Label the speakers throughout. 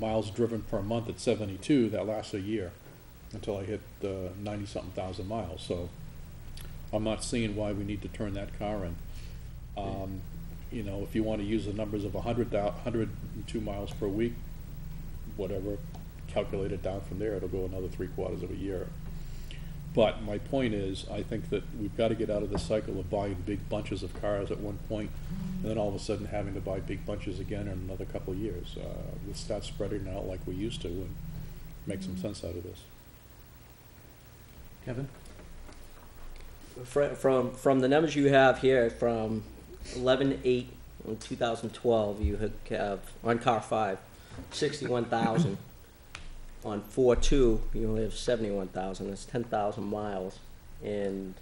Speaker 1: miles driven per month at seventy-two, that lasts a year, until I hit uh ninety-something thousand miles, so I'm not seeing why we need to turn that car in. Um, you know, if you wanna use the numbers of a hundred thou- hundred and two miles per week, whatever, calculate it down from there, it'll go another three quarters of a year. But my point is, I think that we've got to get out of the cycle of buying big bunches of cars at one point, and then all of a sudden having to buy big bunches again in another couple of years. Uh, We'll start spreading it out like we used to and make some sense out of this.
Speaker 2: Kevin?
Speaker 3: Fr- From, from the numbers you have here, from eleven eight in two thousand twelve, you ha- have, on car five, sixty-one thousand. On four two, you only have seventy-one thousand, that's ten thousand miles, and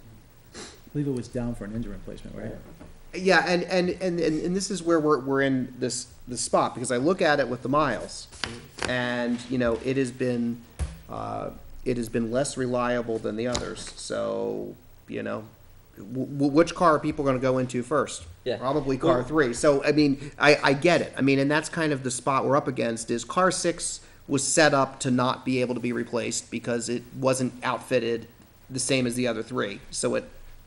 Speaker 2: I believe it was down for an engine replacement, right?
Speaker 4: Yeah, and, and, and, and, and this is where we're, we're in this, this spot, because I look at it with the miles, and, you know, it has been, uh, it has been less reliable than the others, so, you know, w- w- which car are people gonna go into first?
Speaker 3: Yeah.
Speaker 4: Probably car three, so, I mean, I, I get it, I mean, and that's kind of the spot we're up against, is car six was set up to not be able to be replaced, because it wasn't outfitted the same as the other three, so it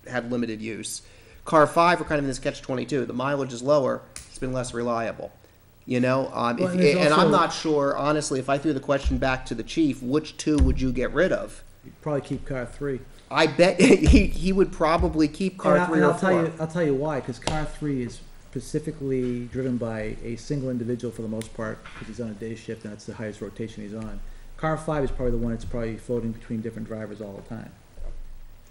Speaker 4: had limited use. Car five, we're kind of in this catch twenty-two. The mileage is lower; it's been less reliable. You know, um,
Speaker 2: Well,
Speaker 4: if,
Speaker 2: and
Speaker 4: and,
Speaker 2: there's also-
Speaker 4: I'm not sure, honestly, if I threw the question back to the chief, which two would you get rid of?
Speaker 2: Probably keep car three.
Speaker 4: I bet he, he would probably keep car
Speaker 2: And I-
Speaker 4: three
Speaker 2: and
Speaker 4: or
Speaker 2: I'll tell
Speaker 4: four.
Speaker 2: you- I'll tell you why, because car three is specifically driven by a single individual for the most part, because he's on a day shift and that's the highest rotation he's on. Car five is probably the one that's probably floating between different drivers all the time.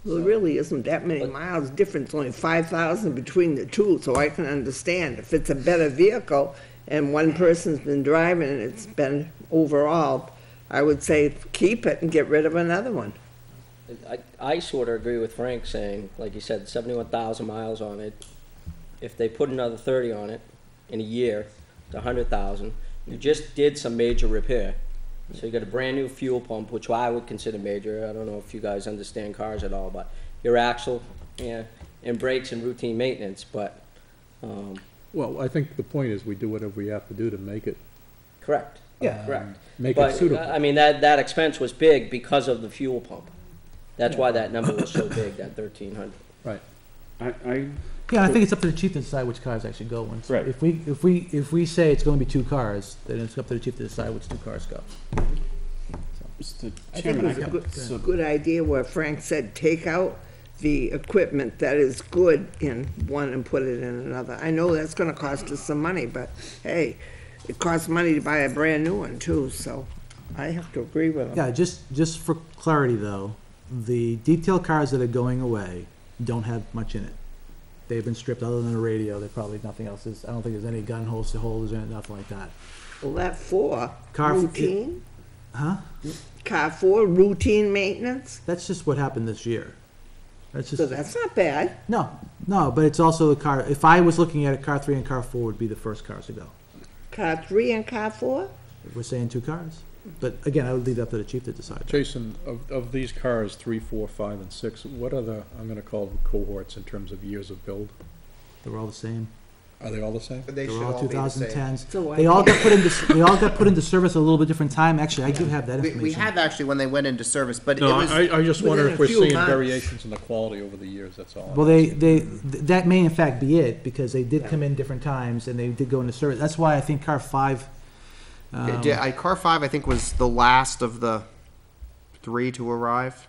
Speaker 5: Well, there really isn't that many miles difference, only five thousand between the two, so I can understand if it's a better vehicle and one person's been driving and it's been overall, I would say keep it and get rid of another one.
Speaker 3: I, I sort of agree with Frank saying, like you said, seventy-one thousand miles on it. If they put another thirty on it in a year, it's a hundred thousand. You just did some major repair. So you got a brand-new fuel pump, which I would consider major. I don't know if you guys understand cars at all, but your axle, yeah, and brakes and routine maintenance, but, um,
Speaker 1: Well, I think the point is we do whatever we have to do to make it,
Speaker 3: correct. Yeah. Correct.
Speaker 1: make
Speaker 3: But, uh, I mean, that, that expense was big because of the fuel pump. That's why that number was so big, that thirteen hundred.
Speaker 1: Right.
Speaker 6: I, I,
Speaker 2: Yeah, I think it's up to the chief to decide which cars actually go in.
Speaker 6: Right.
Speaker 2: If we, if we, if we say it's going to be two cars, then it's up to the chief to decide which two cars go.
Speaker 6: Mr.
Speaker 5: I think it
Speaker 6: Chairman, I
Speaker 5: was a
Speaker 6: got
Speaker 5: good,
Speaker 6: some,
Speaker 5: good idea where Frank said, take out the equipment that is good in one and put it in another. I know that's gonna cost us some money, but hey, it costs money to buy a brand new one too, so I have to agree with him.
Speaker 7: Yeah, just, just for clarity though, the detail cars that are going away don't have much in it. They've been stripped, other than a radio, there probably nothing else is, I don't think there's any gun holes to holders in it, nothing like that.
Speaker 5: Well, that four,
Speaker 7: Car-
Speaker 5: routine?
Speaker 7: Huh?
Speaker 5: Car four, routine maintenance?
Speaker 7: That's just what happened this year. That's
Speaker 5: So
Speaker 7: just,
Speaker 5: that's not bad.
Speaker 7: no, no, but it's also the car, if I was looking at it, car three and car four would be the first cars to go.
Speaker 5: Car three and car four?
Speaker 7: If We're saying two cars, but again, I would leave that to the chief to decide.
Speaker 1: Jason, of, of these cars, three, four, five, and six, what are the, I'm gonna call them cohorts in terms of years of build?
Speaker 7: They're all the same.
Speaker 1: Are they all the same?
Speaker 4: they
Speaker 7: They were all two thousand tens.
Speaker 5: So I-
Speaker 7: They all got put into, they all got put into service at a little bit different time. Actually, I do have that
Speaker 4: We,
Speaker 7: information.
Speaker 4: we have actually when they went into service, but it
Speaker 1: No,
Speaker 4: was
Speaker 1: I, I just wonder
Speaker 5: within
Speaker 1: if
Speaker 5: a
Speaker 1: we're
Speaker 5: few
Speaker 1: seeing
Speaker 5: months.
Speaker 1: variations in the quality over the years, that's all.
Speaker 7: Well, they, they, th- that may in fact be it, because they did come in different times and they did go into service. That's why I think car five, um,
Speaker 4: Yeah, I, car five. I think was the last of the three to arrive,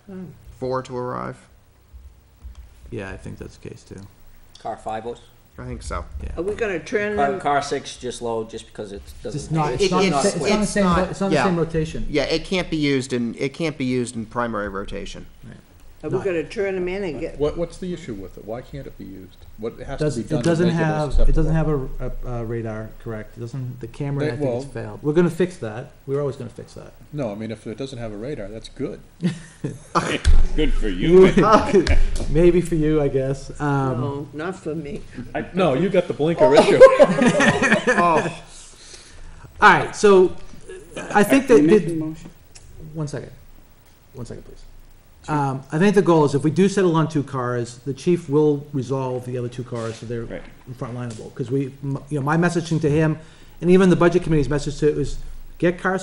Speaker 4: four to arrive.
Speaker 7: yeah, I think that's the case too.
Speaker 3: Car five was?
Speaker 4: I think so.
Speaker 5: Are we gonna turn
Speaker 3: Car,
Speaker 5: them?
Speaker 3: car six just low, just because it doesn't.
Speaker 2: It's not, it's
Speaker 4: It-
Speaker 2: not,
Speaker 4: it's-
Speaker 2: it's not the
Speaker 4: it's
Speaker 2: same, ro-
Speaker 4: not-
Speaker 2: it's not the
Speaker 4: yeah.
Speaker 2: same rotation.
Speaker 4: Yeah, it can't be used in it can't be used in primary rotation.
Speaker 5: Are we gonna turn them in and get,
Speaker 1: What, what's the issue with it? Why can't it be used? What has to be
Speaker 7: Doesn't,
Speaker 1: done
Speaker 7: it
Speaker 1: to
Speaker 7: doesn't
Speaker 1: make it
Speaker 7: have,
Speaker 1: less
Speaker 7: it doesn't
Speaker 1: acceptable?
Speaker 7: have a, a a radar, correct? It doesn't, the camera,
Speaker 1: They-
Speaker 7: I think
Speaker 1: well-
Speaker 7: it's failed. We're gonna fix that. We're always gonna fix that.
Speaker 1: No, I mean, if it doesn't have a radar, that's good.
Speaker 8: Good for you.
Speaker 7: Maybe for you, I guess. Um,
Speaker 5: no, not for me.
Speaker 1: No, you got the blinker issue.
Speaker 7: all right, so I think that.
Speaker 6: you
Speaker 7: that-
Speaker 6: making a motion?
Speaker 7: One second. One second, please. Um, I think the goal is if we do settle on two cars, the chief will resolve the other two cars so they're
Speaker 8: Right.
Speaker 7: frontlineable. Because we, m- you know, my messaging to him, and even the budget committee's message to it was, Get car